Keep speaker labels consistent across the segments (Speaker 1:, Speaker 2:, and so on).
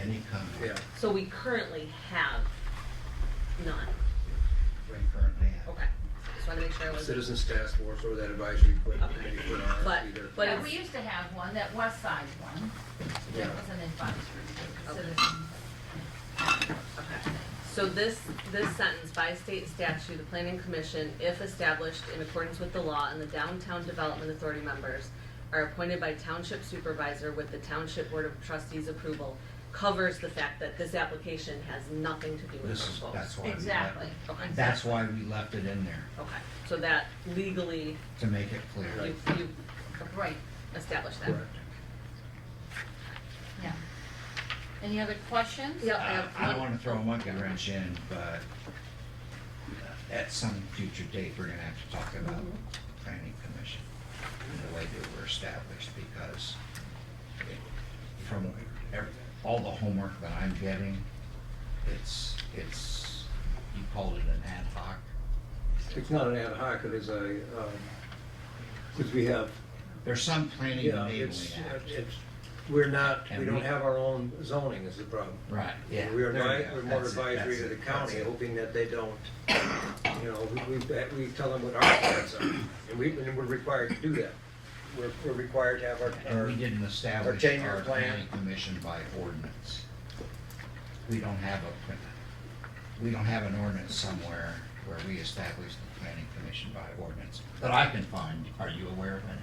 Speaker 1: any kind,
Speaker 2: Yeah,
Speaker 3: So we currently have none.
Speaker 1: we currently have.
Speaker 3: Okay. Just want to make sure I was.
Speaker 2: Citizens Task Force or that advisory committee put an
Speaker 3: But-
Speaker 2: RFP there.
Speaker 3: but
Speaker 4: Yeah,
Speaker 3: it's-
Speaker 4: we used to have one, that west side one, that
Speaker 2: Yeah.
Speaker 4: was an advisory, it was
Speaker 3: Okay.
Speaker 4: citizen-
Speaker 3: Okay. So this, this sentence, by state statute, the planning commission, if established in accordance with the law and the downtown development authority members are appointed by township supervisor with the township board of trustees approval, covers the fact that this application has nothing to do with
Speaker 1: This is,
Speaker 3: proposal.
Speaker 1: that's why we left.
Speaker 4: Exactly.
Speaker 3: Okay.
Speaker 1: That's why we left it in there,
Speaker 3: Okay, so that legally,
Speaker 1: to make it clear. Uh,
Speaker 3: you, you
Speaker 4: Right,
Speaker 3: established that.
Speaker 2: Correct.
Speaker 4: yeah. Any other questions?
Speaker 3: Yep. I
Speaker 1: Uh,
Speaker 3: have
Speaker 1: I don't
Speaker 3: one-
Speaker 1: wanna throw a monkey wrench in, but uh, at some future date, we're gonna have to talk about
Speaker 2: Mm-hmm.
Speaker 1: planning commission and the way they were established, because it- from every, all the homework that I'm getting, it's, it's, you called it an ad hoc.
Speaker 2: It's not an ad hoc, it is a, because we have,
Speaker 1: There's some planning
Speaker 2: you know,
Speaker 1: enabling
Speaker 2: it's,
Speaker 1: act.
Speaker 2: it's, we're not,
Speaker 1: And
Speaker 2: we
Speaker 1: we-
Speaker 2: don't have our own zoning is the problem.
Speaker 1: Right, yeah.
Speaker 2: We are
Speaker 1: there you
Speaker 2: advi-
Speaker 1: go.
Speaker 2: we're more
Speaker 1: That's it,
Speaker 2: advisory
Speaker 1: that's
Speaker 2: to the
Speaker 1: it, that's
Speaker 2: county,
Speaker 1: it.
Speaker 2: hoping that they don't, you know, we, we, that we tell them what our plans are. And we, and we're required to do that. We're, we're required to have our,
Speaker 1: And
Speaker 2: our,
Speaker 1: we didn't establish
Speaker 2: ten-year
Speaker 1: our
Speaker 2: plan.
Speaker 1: planning commission by ordinance. We don't have a, we don't have an ordinance somewhere where we establish the planning commission by ordinance, that I can find. Are you aware of any?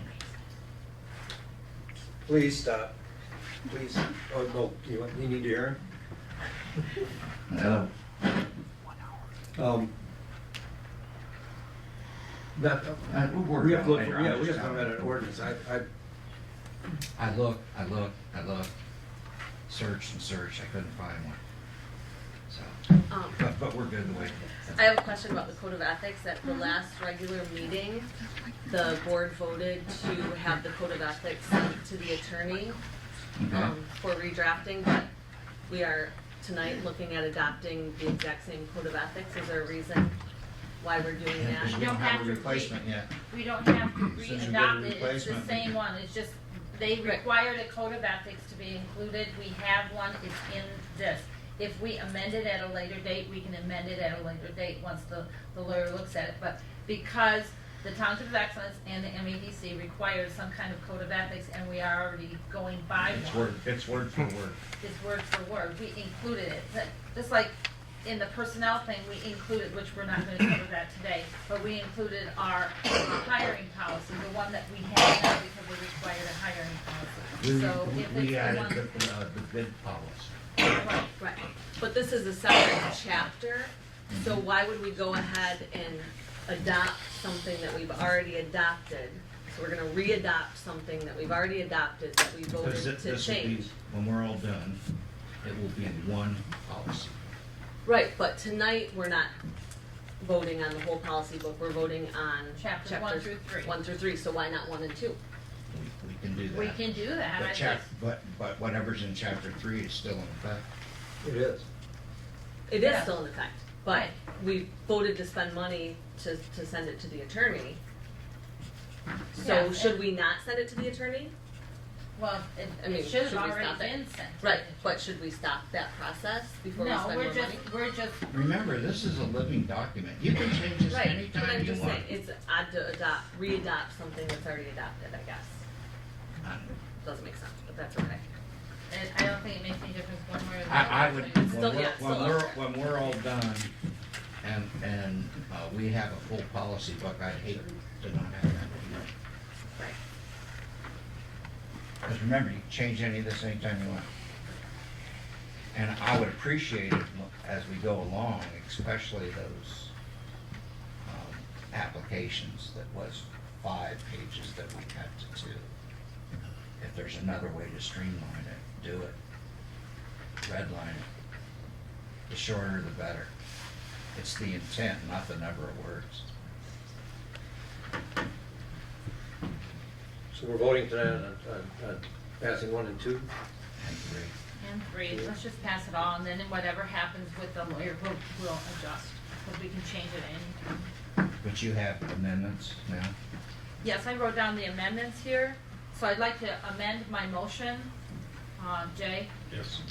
Speaker 2: please stop, please, oh, no, you, want- you need to hear him?
Speaker 1: No.
Speaker 2: Um, Not,
Speaker 1: Uh, we'll work
Speaker 2: we have
Speaker 1: on
Speaker 2: to
Speaker 1: it
Speaker 2: look,
Speaker 1: later.
Speaker 2: yeah,
Speaker 1: I'm
Speaker 2: we have
Speaker 1: just
Speaker 2: to
Speaker 1: telling
Speaker 2: look at an
Speaker 1: you.
Speaker 2: ordinance, I, I,
Speaker 1: I looked, I looked, I looked, searched and searched, I couldn't find one. So,
Speaker 3: Um,
Speaker 1: but, but we're good the way.
Speaker 3: I have a question about the code of ethics. At the last regular meeting, the board voted to have the code of ethics sent to the attorney
Speaker 1: Okay.
Speaker 3: um, for redrafting, but we are tonight looking at adopting the exact same code of ethics. Is there a reason why we're doing
Speaker 1: Yeah, 'cause
Speaker 3: that?
Speaker 1: we don't
Speaker 4: Don't
Speaker 1: have a
Speaker 4: have to
Speaker 1: replacement yet.
Speaker 4: We don't have to
Speaker 1: Since you get a
Speaker 4: re-adopt it, it's the
Speaker 1: replacement.
Speaker 4: same one, it's just, they
Speaker 3: Right.
Speaker 4: required a code of ethics to be included, we have one, it's in this. If we amend it at a later date, we can amend it at a later date, once the, the lawyer looks at it, but because the Township of Excellence and the MEDC require some kind of code of ethics, and we are already going by
Speaker 1: It's
Speaker 4: one
Speaker 1: word, it's word for word.
Speaker 4: is word for word, we included it, But just like in the personnel thing, we included, which we're not gonna cover that today, but we included our hiring policy, the one that we have now because we required a hiring policy.
Speaker 1: We,
Speaker 4: So if
Speaker 1: we
Speaker 4: it's
Speaker 1: added
Speaker 4: the one,
Speaker 1: the, uh, the bid policy.
Speaker 4: right,
Speaker 3: Right. But this is a separate chapter, so why would we go ahead and adopt something that we've already adopted? So we're gonna re-adopt something that we've already adopted that we
Speaker 1: Because
Speaker 3: voted
Speaker 1: it-
Speaker 3: to
Speaker 1: this will be-
Speaker 3: change.
Speaker 1: When we're all done, it will be one policy.
Speaker 3: Right, but tonight, we're not voting on the whole policy book, we're voting on.
Speaker 4: Chapters one
Speaker 3: chapters
Speaker 4: through three.
Speaker 3: One through three, so why not one and two?
Speaker 1: We, we can do that.
Speaker 4: we can do that, I
Speaker 1: But
Speaker 4: just,
Speaker 1: chap, but, but whatever's in chapter three is still in effect.
Speaker 2: it is.
Speaker 3: It is
Speaker 4: Yeah.
Speaker 3: still in effect, but we voted to spend money to, to send it to the attorney. So
Speaker 4: Yeah,
Speaker 3: should
Speaker 4: and-
Speaker 3: we not send it to the attorney?
Speaker 4: well,
Speaker 3: I
Speaker 4: it,
Speaker 3: mean,
Speaker 4: it should have
Speaker 3: should we
Speaker 4: already
Speaker 3: stop it?
Speaker 4: been sent.
Speaker 3: Right, but should we stop that process before we
Speaker 4: No,
Speaker 3: spend more money?
Speaker 4: we're just, we're just,
Speaker 1: Remember, this is a living document. You can change this
Speaker 3: Right, but
Speaker 1: anytime
Speaker 3: I'm
Speaker 1: you
Speaker 3: just
Speaker 1: want.
Speaker 3: saying, it's odd to adopt, re-adopt something that's already adopted, I guess.
Speaker 1: I-
Speaker 3: Doesn't make sense, but that's okay.
Speaker 4: and I don't think it makes any difference one way or the other.
Speaker 1: I, I would,
Speaker 4: but it's
Speaker 1: when
Speaker 3: Still,
Speaker 1: we're,
Speaker 3: yeah,
Speaker 1: when
Speaker 3: still.
Speaker 1: we're, when we're all done and, and, uh, we have a full policy book, I'd hate to not have that.
Speaker 3: Right.
Speaker 1: Because remember, you can change any of this anytime you want. And I would appreciate it mo- as we go along, especially those, um, applications that was five pages that we cut to two. If there's another way to streamline it, do it. Redline it. The shorter the better. It's the intent, not the number of words.
Speaker 2: So we're voting tonight on, on, on passing one and two?
Speaker 1: And three,
Speaker 4: And three, let's just pass it all, and then whatever happens with the lawyer, we'll, we'll adjust, because we can change it any time.
Speaker 1: but you have amendments now?
Speaker 4: Yes, I wrote down the amendments here, so I'd like to amend my motion, uh, Jay,
Speaker 5: Yes.